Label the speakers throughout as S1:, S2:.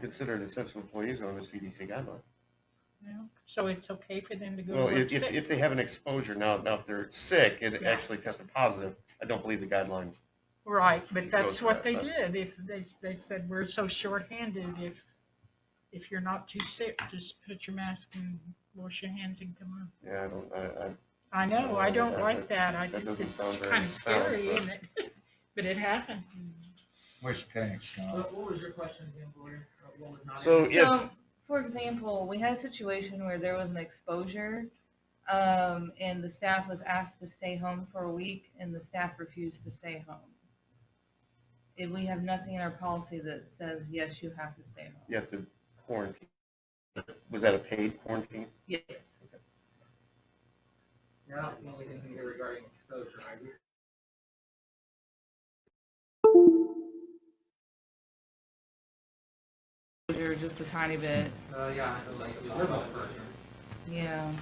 S1: considered essential employees on the CDC guideline.
S2: No? So it's okay for them to go
S1: Well,
S2: to
S1: if,
S2: work
S1: if,
S2: sick?
S1: if they have an exposure now, now if they're sick and
S2: Yeah.
S1: actually tested positive, I don't believe the guideline.
S2: Right, but
S1: It
S2: that's
S1: goes
S2: what
S1: back,
S2: they
S1: huh?
S2: did. If they, they said, we're so shorthanded, if, if you're not too sick, just put your mask and wash your hands and come on.
S1: Yeah, I don't, I, I,
S2: I know, I don't
S1: Yeah,
S2: like
S1: that-
S2: that. I
S1: that
S2: think
S1: doesn't
S2: it's
S1: sound very
S2: kind of
S1: sound,
S2: scary,
S1: but-
S2: isn't it? But it happened.
S3: Which panic, Scott?
S4: What, what was your question again, Gloria? Uh, What was not?
S1: So,
S4: answered?
S1: If-
S5: So, for example, we had a situation where there was an exposure, um, and the staff was asked to stay home for a week, and the staff refused to stay home. If we have nothing in our policy that says, yes, you have to stay home.
S1: you have to quarantine. Was that a paid quarantine?
S5: Yes.
S4: Yeah, I don't see anything here regarding exposure. I just
S5: Exposure just a tiny bit,
S4: Uh, yeah, it was like a verbal person.
S5: yeah.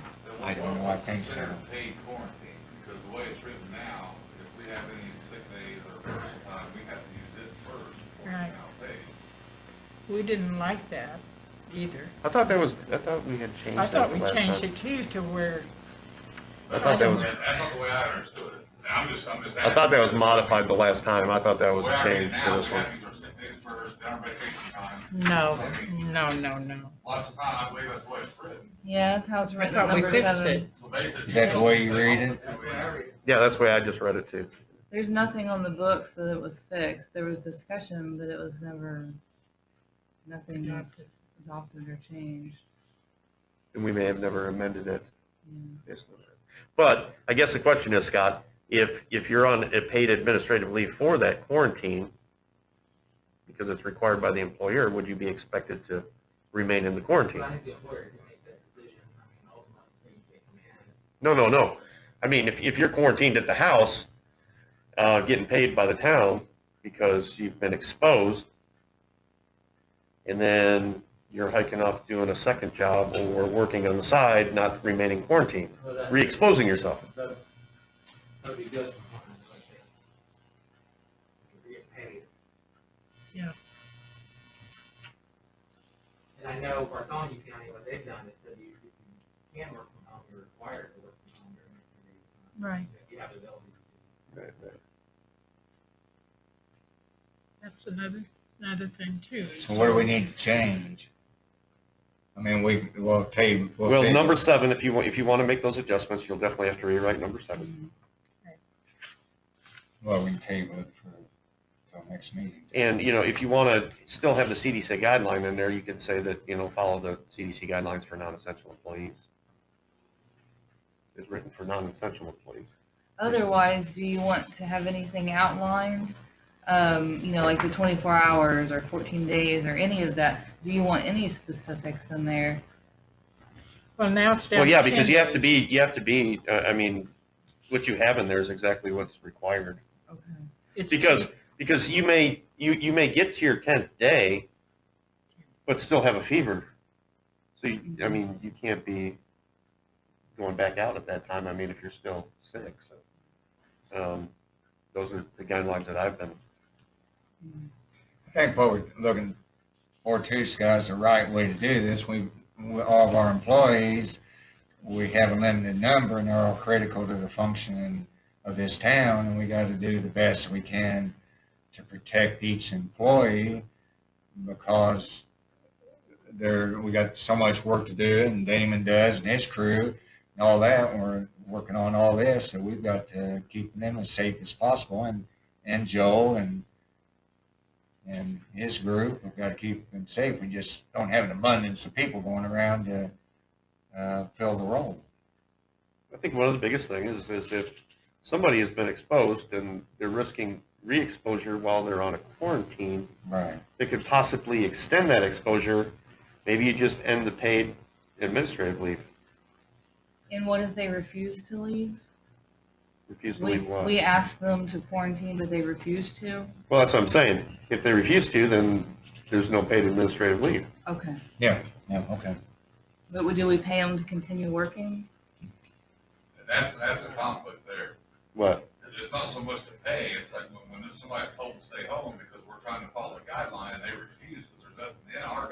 S3: I don't know, I think so.
S6: Considered Paid quarantine, because the way it's written now, if we have any sick days or personal time, we have to use it first before
S2: Right.
S6: it's now paid.
S2: We didn't like that either.
S1: I thought that was, I thought we had changed
S2: I
S1: that
S2: thought
S1: the
S2: we
S1: last
S2: changed
S1: time.
S2: it too to where,
S1: I thought that was,
S6: That's not the way I understood it. I'm just, I'm just.
S1: I thought that was
S6: asking.
S1: modified the last time. I thought that was
S6: The way
S1: a
S6: I read
S1: change
S6: it
S1: for
S6: now,
S1: this
S6: We
S1: one.
S6: have to use our sick days first, then our vacation time.
S2: no, no, no, no.
S6: Lots of time, I believe that's the way it's written.
S5: Yeah, that's how it's
S2: I
S5: written.
S2: thought we
S5: number
S2: fixed
S5: seven.
S2: it.
S6: So basically.
S3: Is that the way you read it?
S4: That's what I read.
S1: Yeah, that's the way I just read it too.
S5: There's nothing on the books that it was fixed. There was discussion, but it was never, nothing was
S2: Adopted.
S5: adopted or changed.
S1: And we may have never amended it.
S5: Yeah.
S1: based on that. But I guess the question is, Scott, if, if you're on a paid administrative leave for that quarantine, because it's required by the employer, would you be expected to remain in the
S4: But
S1: quarantine?
S4: I think the employer can make that decision. I mean, ultimately, it's in their command.
S1: No, no, no. I mean, if, if you're quarantined at the house, uh, getting paid by the town because you've been exposed, and then you're hiking off doing a second job or working on the side, not remaining quarantined,
S4: Well, that-
S1: re-exposing yourself.
S4: That's, that'd be just. compliance, I think. If you get paid.
S2: Yeah.
S4: And I know Bartholomew County, what they've done is that you you can work from home, you're required to work from home. during that period of time.
S2: Right.
S4: If you have the ability. to.
S2: That's another, another thing too.
S3: So what do we need to change? I mean, we, we'll table.
S1: Well,
S3: table-
S1: number seven, if you, wa- if you want to make those adjustments, you'll definitely have to rewrite number seven.
S3: Well, we can table it for, till next meeting.
S1: And, you know, if you want to still have the CDC guideline in there, you can say that, you know, follow the CDC guidelines for non-essential employees. It's written for non-essential employees.
S5: Otherwise, do you want to have anything outlined? Um, you know, like the twenty-four hours or fourteen days or any of that? Do you want any specifics in there?
S2: Well, now it's down
S1: Well,
S2: to
S1: yeah, because
S2: 10
S1: you have to
S2: days.
S1: be, you have to be, uh, I mean, what you have in there is exactly what's required.
S5: Okay.
S2: It's
S1: Because, because you may, you, you may get to your tenth day, but still have a fever. So, you- I mean, you can't be going back out at that time, I mean, if you're still sick, so. um, Those are the guidelines that I've been,
S3: I think what we're looking for too, Scott, is the right way to do this. We, we- all of our employees, we have a limited number and they're all critical to the functioning of this town and we got to do the best we can to protect each employee because there, we got so much work to do and Damon does and his crew and all that. and We're working on all this, so we've got to keep them as safe as possible and, and Joel and and his group, we've got to keep them safe. We just don't have an abundance of people going around to uh, fill the role.
S1: I think one of the biggest things is if somebody has been exposed and they're risking re-exposure while they're on a quarantine,
S3: Right.
S1: that could possibly extend that exposure, maybe you just end the paid administrative leave,
S5: And what if they refuse to leave?
S1: refuse to
S5: We,
S1: leave
S5: we
S1: one.
S5: asked them to quarantine, but they refused to?
S1: Well, that's what I'm saying. If they refuse to, then there's no paid administrative leave.
S5: Okay.
S3: Yeah. Yeah. Okay.
S5: But we- do we pay them to continue working?
S6: And that's, that's the conflict there.
S1: What?
S6: it's not so much to pay, it's like when, when somebody's told to stay home because we're trying to follow a guideline and they refuse because they're doesn't, in our